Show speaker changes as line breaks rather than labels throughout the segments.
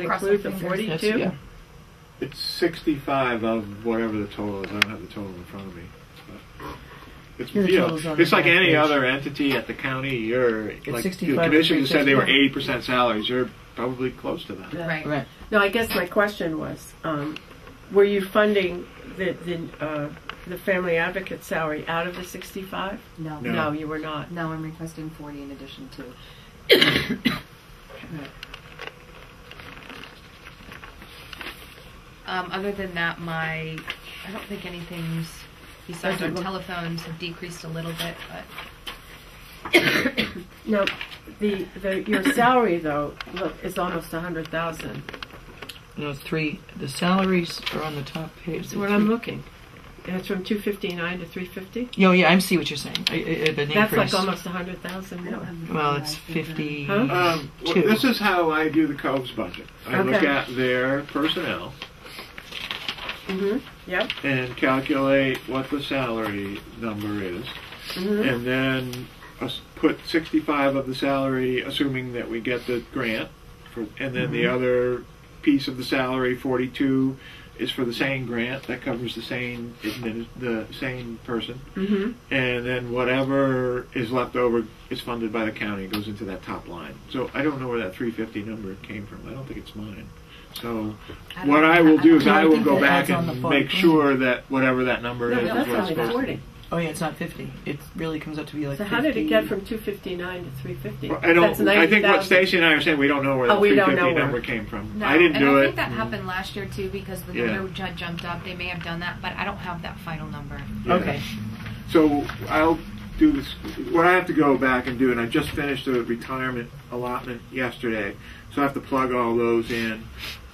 That
Across
include
my
the
fingers, yes,
forty-two?
yeah.
It's 65 of whatever the total is. I don't have the total in front of me. but It's,
Your
you know,
total's on
it's
the
like
back
any
page.
other entity at the county. You're like the
65,
commission just said they were
361.
80 percent salaries. You're probably close to that.
Yeah.
Right.
Right.
No, I guess my question was, um, were you funding the, the, uh, the family advocate salary out of the sixty-five?
No.
No. Um,
No, you were not.
No, I'm requesting 40 in addition to.
Um, other than that, my I don't think anything's besides
Doesn't
our
look-
telephones have decreased a little bit, but
No, the, the, your salary though, look, is almost a hundred thousand.
No, three. The salaries are on the top page.
That's what I'm looking. And it's from two fifty-nine to three fifty?
Oh, yeah, I see what you're saying. I, I, I- the
That's like
increase.
almost a hundred thousand
I don't
more.
have the
Well,
full
it's
license.
fifty.
Huh?
Um, well,
Two.
this is how I do the Cove's budget. I look
Okay.
at their personnel
Mm-hmm, yep,
and calculate what the salary number is,
mm-hmm,
and then us- put 65 of the salary, assuming that we get the grant, for, and then the other piece of the salary, 42, is for the same grant that covers the same admin- the same person,
mm-hmm.
and then whatever is left over is funded by the county and goes into that top line. So I don't know where that 350 number came from. I don't think it's mine. So
I
what
don't-
I will do is
don't
I will
think
go
that
back
adds on the
and
full-
make sure that whatever that number
No,
is,
but that's
is what it's
only
supposed to
forty.
be.
Oh, yeah, it's not fifty. It really comes up to be like.
So how did it
50.
get from two fifty-nine to three fifty?
Well, I don't. I think what Stacy and I are saying, we don't know where
Oh,
the
we don't
350
know where.
number came from.
no.
I didn't
and
do
I
it. Mm-hmm.
think that happened last year too because the
Yeah.
number ju- jumped up. They may have done that, but I don't have that final number.
Yeah.
Okay.
So I'll do this. What I have to go back and do, and I just finished the retirement allotment yesterday, so I have to plug all those in.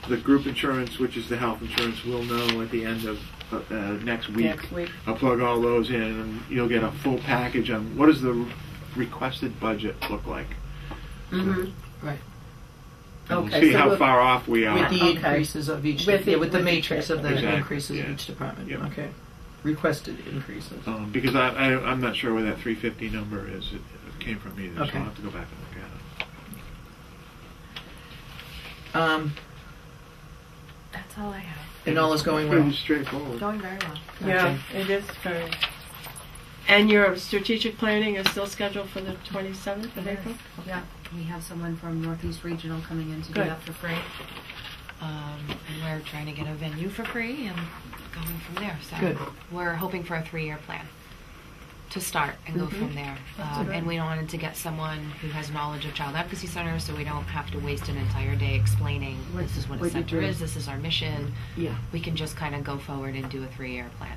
The group insurance, which is the health insurance, we'll know at the end of uh, uh, next week.
Next week.
I'll plug all those in, and you'll get a full package on what does the requested budget look like.
Mm-hmm.
Right.
And we'll
Okay,
see
so
how
we'll-
far off we are.
With the
Okay.
increases of each.
With the-
yeah, with the
with the-
matrix of the
Exactly,
increases
yeah.
of each department.
Yep.
Okay. Requested increases.
Um, because I, I, I'm not sure where that 350 number is. It, it came from either, so
Okay.
I'll have to go back and look at it.
Um,
That's all I have.
and all is going
Pretty
well.
straightforward.
Going very well.
Yeah, it is very. And your strategic planning is still scheduled for the 27th of April?
Yeah, we have someone from Northeast Regional coming in to do
Good.
that for free.
Um, and we're trying to get a venue for free and going from there. So
Good.
we're hoping for a three-year plan to start and go
Mm-hmm.
from there. Um, and we wanted to get someone who has knowledge of child advocacy centers, so we don't have to waste an entire day explaining
What-
this is what,
what
a
you
center
do.
is, this is our mission.
Yeah.
We can just kind of go forward and do a three-year plan.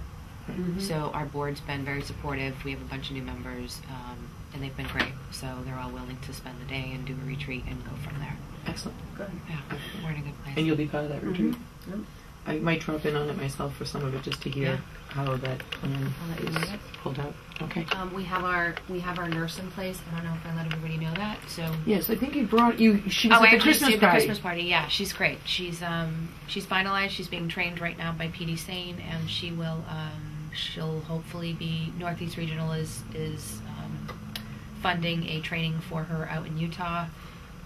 Mm-hmm.
Mm-hmm.
So our board's been very supportive. We have a bunch of new members, um, and they've been great. So they're all willing to spend the day and do a retreat and go from there.
Excellent.
Yeah, we're in a good place.
And you'll be part of
Mm-hmm.
that retreat. I might drop in on it myself for some of it just to hear how that plan
I'll let you
is
know.
pulled out. Okay.
Um, we have our we have our nurse in place. I don't know if I let everybody know that. So
Yes, I think you brought you. She was
oh, I
at the
actually
Christmas
did the
party.
Christmas party. Yeah, she's great. She's um she's finalized. She's being trained right now by PD Sane, and she will um she'll hopefully be Northeast Regional is is um, funding a training for her out in Utah.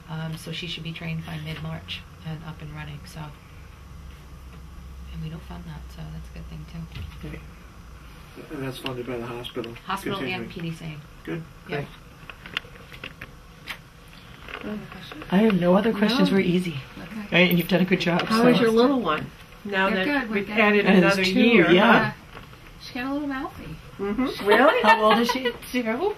Um, so she should be trained by mid March and up and running. So and we don't fund that, so that's a good thing too.
Okay.
And that's funded by the hospital.
Hospital and
Continuing.
PD Sane.
Good.
Yeah.
Great. I have no other questions.
No.
Were easy,
Okay.
right? And you've done a good job.
How
so.
is your little one? Now that
They're good, we're
we've
good.
added
That is
another
two,
year.
yeah.
She got a little mouthy.
Mhm. Really?
How old is she? Zero.
Oh,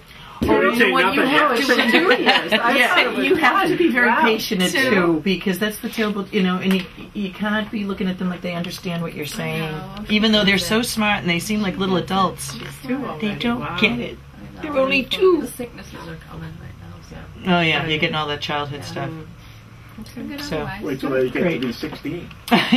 you know what? You have
to do it. I thought it
yeah,
was
you have to be very
Wow.
patient at
Two.
two because that's the terrible, you know, and you, you can't be looking at them like they understand what you're saying,
know, I'm
even though they're so smart and they seem like little adults.
Two already,
They don't
wow.
get it.
They're
only two.
The sicknesses are common right now, so.
Oh yeah, you're getting all that childhood stuff.
Mm.
I'm good
So-
otherwise.
Wait till they get to
Great.
be 16.
yeah,
No, it's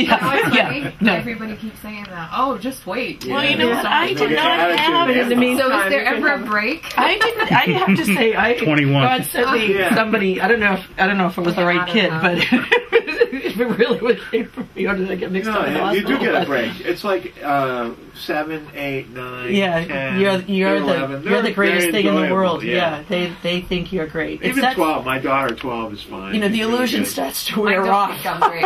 yeah,
funny.
no.
Everybody keeps saying that. Oh, just wait.
Well, you know
what?
I
They
did
get
not
attitude
have
and
it in the
effort.
mean-
So is
Time,
there
you can
ever a
have-
break?
I didn't. I have to say, I
21.
God sent me
Ah, Yeah.
somebody. I don't know if I don't know if it was the right kid, but really what came from me, or did I get mixed
No,
up? in the
Oh, you do
hospital?
get a break. It's like uh, seven, eight, nine,
Yeah,
10,
you're you're the
11.
you're the
They're
greatest
very
thing in the
enjoyable,
world. Yeah. they they think you're great. It's
Even
that-
12, my daughter 12 is fine.
You know, the
She's really
illusion
good.
starts to
I
wear
don't
off.
think I'm very